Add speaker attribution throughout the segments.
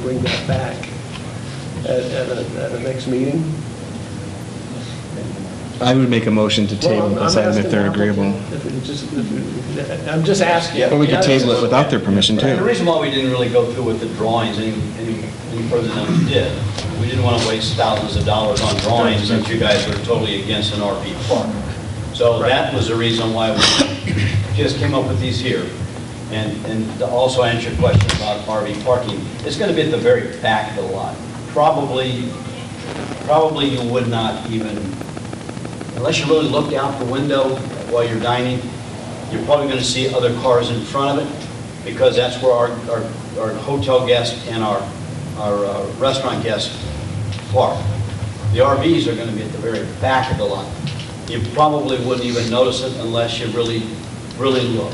Speaker 1: bring that back at, at a, at a next meeting?
Speaker 2: I would make a motion to table
Speaker 1: Well, I'm-
Speaker 2: this
Speaker 1: I'm
Speaker 2: item if
Speaker 1: asking
Speaker 2: they're
Speaker 1: the applicant
Speaker 2: agreeable.
Speaker 1: if it just- if it- I'm just asking.
Speaker 2: Or we could table it without their permission
Speaker 3: The
Speaker 2: too.
Speaker 3: reason why we didn't really go through with the drawings any, any any further than we did, we didn't want to waste thousands of dollars on drawings since you guys were totally against an RV park. So that was the reason why we just came up with these here. And, and to also answer your question about RV parking, it's going to be at the very back of the lot. Probably, probably you would not even unless you really look out the window while you're dining, you're probably going to see other cars in front of it, because that's where our, our our hotel guests and our, our uh, restaurant guests park. The RVs are going to be at the very back of the lot. You probably wouldn't even notice it unless you really, really look.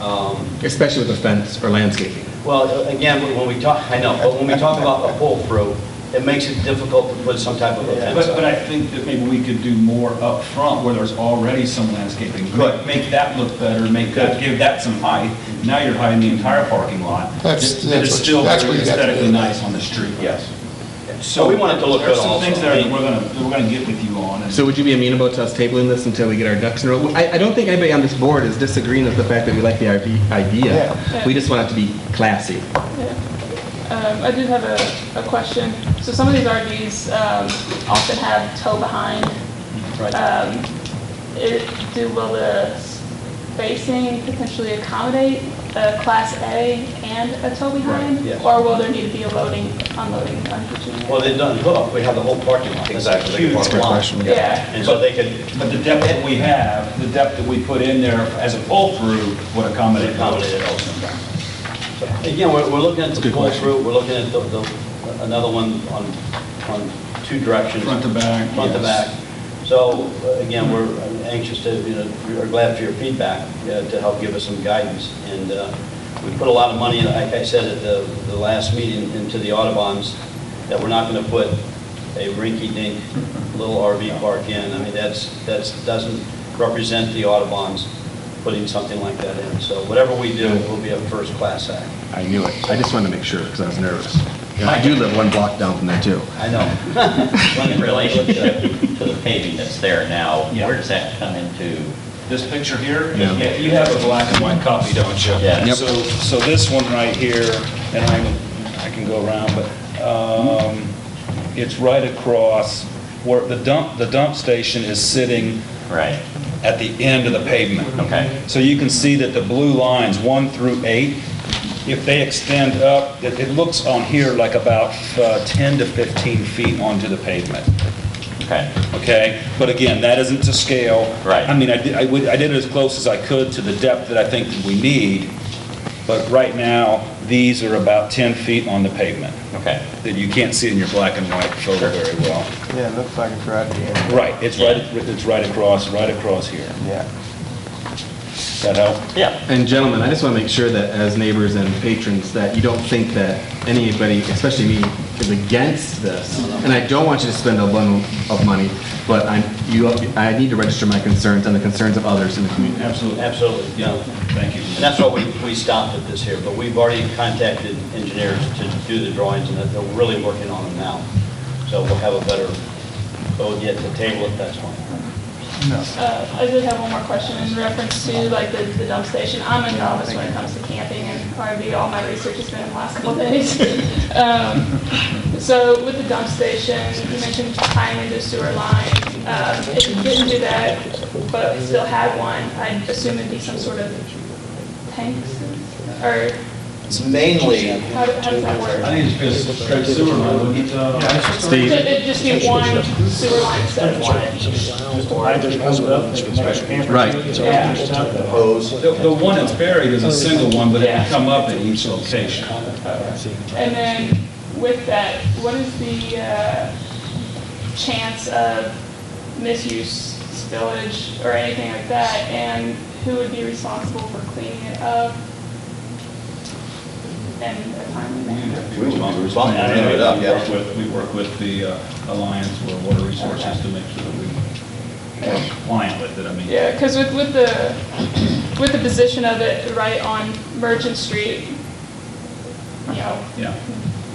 Speaker 3: Um,
Speaker 2: Especially with a fence or landscaping.
Speaker 3: well, again, when we talk, I know, but when we talk about a pull-through, it makes it difficult to put some type of a fence
Speaker 4: But,
Speaker 3: up.
Speaker 4: but I think that maybe we could do more up front where there's already some landscaping.
Speaker 3: Good.
Speaker 4: Make that look better, make that, give that some height. Now you're hiding the entire parking lot.
Speaker 5: That's-
Speaker 4: That- That
Speaker 5: that's
Speaker 4: is
Speaker 5: what-
Speaker 4: still
Speaker 5: that's what you have to
Speaker 4: aesthetically
Speaker 5: do.
Speaker 4: nice on the street.
Speaker 3: Yes. So we want it to look good
Speaker 4: There's some
Speaker 3: also.
Speaker 4: things there that we're gonna, that we're gonna get with you on. and-
Speaker 2: So would you be amenable to us tabling this until we get our ducks in a row? I, I don't think anybody on this board is disagreeing with the fact that we like the IV idea.
Speaker 6: Yeah.
Speaker 2: We just want it to be classy.
Speaker 6: Um, I did have a, a question. So some of these RVs um, often have tow behind.
Speaker 3: Right.
Speaker 6: Um, it, do will the spacing potentially accommodate a Class A and a tow behind?
Speaker 3: Right, yes.
Speaker 6: Or will there need to be a loading, unloading, unhitching?
Speaker 3: Well, they've done hook, we have the whole parking lot. Exactly. Huge
Speaker 2: That's a
Speaker 3: parking
Speaker 2: good
Speaker 3: lot.
Speaker 2: question.
Speaker 6: Yeah.
Speaker 3: And so they could
Speaker 4: But the depth that we have, the depth that we put in there as a pull-through would accommodate. those.
Speaker 3: accommodate it also. Again, we're, we're looking at the
Speaker 2: Good question.
Speaker 3: pull-through, we're looking at the, the, another one on, on two directions.
Speaker 4: Front to back,
Speaker 3: Front to
Speaker 4: yes.
Speaker 3: back. So, uh, again, we're anxious to, you know, we're glad for your feedback, uh, to help give us some guidance. And, uh, we put a lot of money, like I said at the, the last meeting, into the Audubon's, that we're not gonna put a rinky-dink little RV park in. I mean, that's, that's, doesn't represent the Audubon's putting something like that in. So whatever we do, will be a first-class act.
Speaker 2: I knew it. I just wanted to make sure because I was nervous. And I do live one block down from there too.
Speaker 3: I know.
Speaker 7: In relation to the- to the paving that's there now,
Speaker 4: Yeah.
Speaker 7: where does that come into?
Speaker 4: This picture here?
Speaker 2: Yeah.
Speaker 4: You have a black and white copy, don't you?
Speaker 7: Yeah.
Speaker 2: Yep.
Speaker 4: So, so this one right here, and I, I can go around, but, um, it's right across where the dump, the dump station is sitting
Speaker 7: Right,
Speaker 4: at the end of the pavement.
Speaker 7: Okay.
Speaker 4: So you can see that the blue lines, one through eight, if they extend up, it, it looks on here like about uh, 10 to 15 feet onto the pavement
Speaker 7: okay.
Speaker 4: okay? But again, that isn't to scale.
Speaker 7: Right.
Speaker 4: I mean, I did, I would- I did it as close as I could to the depth that I think that we need, but right now, these are about 10 feet on the pavement.
Speaker 7: Okay.
Speaker 4: That you can't see in your black and white photo very well.
Speaker 8: Yeah, it looks like it's right at the end.
Speaker 4: Right, it's right, it's right across, right across here.
Speaker 8: Yeah.
Speaker 4: Does that help?
Speaker 7: Yeah,
Speaker 2: And gentlemen, I just want to make sure that as neighbors and patrons, that you don't think that anybody, especially me, is against this. And I don't want you to spend a bundle of money, but I'm, you, I need to register my concerns and the concerns of others in the community.
Speaker 4: Absolutely.
Speaker 3: Absolutely, yeah.
Speaker 4: Thank you.
Speaker 3: And that's why we, we stopped at this here, but we've already contacted engineers to do the drawings, and they're really working on them now. So we'll have a better, vote yet to table it, that's fine.
Speaker 6: Uh, I did have one more question in reference to like the the dump station. I'm a novice when it comes to camping and RV, all my research has been in the last couple days. Um, So with the dump station, you mentioned tying into sewer line. Um, If you didn't do that, but still had one, I would assume it'd be some sort of tanks or
Speaker 7: it's mainly,
Speaker 6: how do- how does that work?
Speaker 4: think it's just straight sewer line,
Speaker 6: So
Speaker 2: Steve,
Speaker 6: it'd just be one sewer line instead of one at each?
Speaker 2: right.
Speaker 4: The, the one that's buried is a single one, but it can come up at each location.
Speaker 6: And then with that, what is the uh, chance of misuse, spillage, or anything like that? And who would be responsible for cleaning it up? And a timely
Speaker 4: We
Speaker 6: manner?
Speaker 4: work with-
Speaker 3: responsible for cleaning it up, yeah.
Speaker 4: We work with- We work with the uh, Alliance for Water Resources to make sure that we are compliant with it, I mean.
Speaker 6: Yeah, because with, with the, with the position of it right on Merchant Street, you know,
Speaker 4: Yeah.